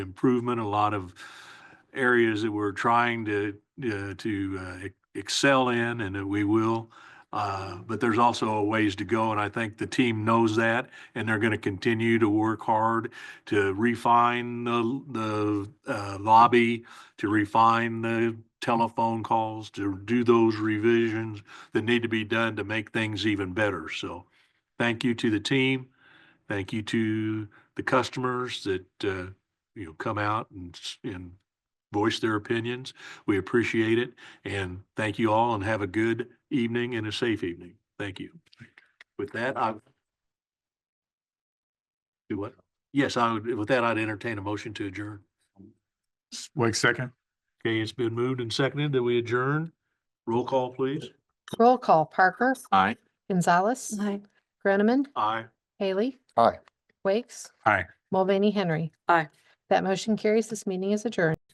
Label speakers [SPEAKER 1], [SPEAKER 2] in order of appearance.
[SPEAKER 1] improvement, a lot of areas that we're trying to, uh, to uh, ex- excel in and that we will. Uh, But there's also a ways to go, and I think the team knows that, and they're going to continue to work hard to refine the, the uh, lobby, to refine the telephone calls, to do those revisions that need to be done to make things even better. So thank you to the team. Thank you to the customers that, uh, you know, come out and, s- and voice their opinions. We appreciate it. And thank you all and have a good evening and a safe evening. Thank you. With that, I do what? Yes, I would, with that, I'd entertain a motion to adjourn.
[SPEAKER 2] Wait a second.
[SPEAKER 1] Okay, it's been moved and seconded that we adjourn. Roll call, please.
[SPEAKER 3] Roll call, Parker,
[SPEAKER 2] Aye.
[SPEAKER 3] Gonzalez, Groneman,
[SPEAKER 1] Aye.
[SPEAKER 3] Haley.
[SPEAKER 2] Aye.
[SPEAKER 3] Wakes.
[SPEAKER 2] Aye.
[SPEAKER 3] Mulvaney Henry.
[SPEAKER 4] Aye.
[SPEAKER 3] That motion carries. This meeting is adjourned.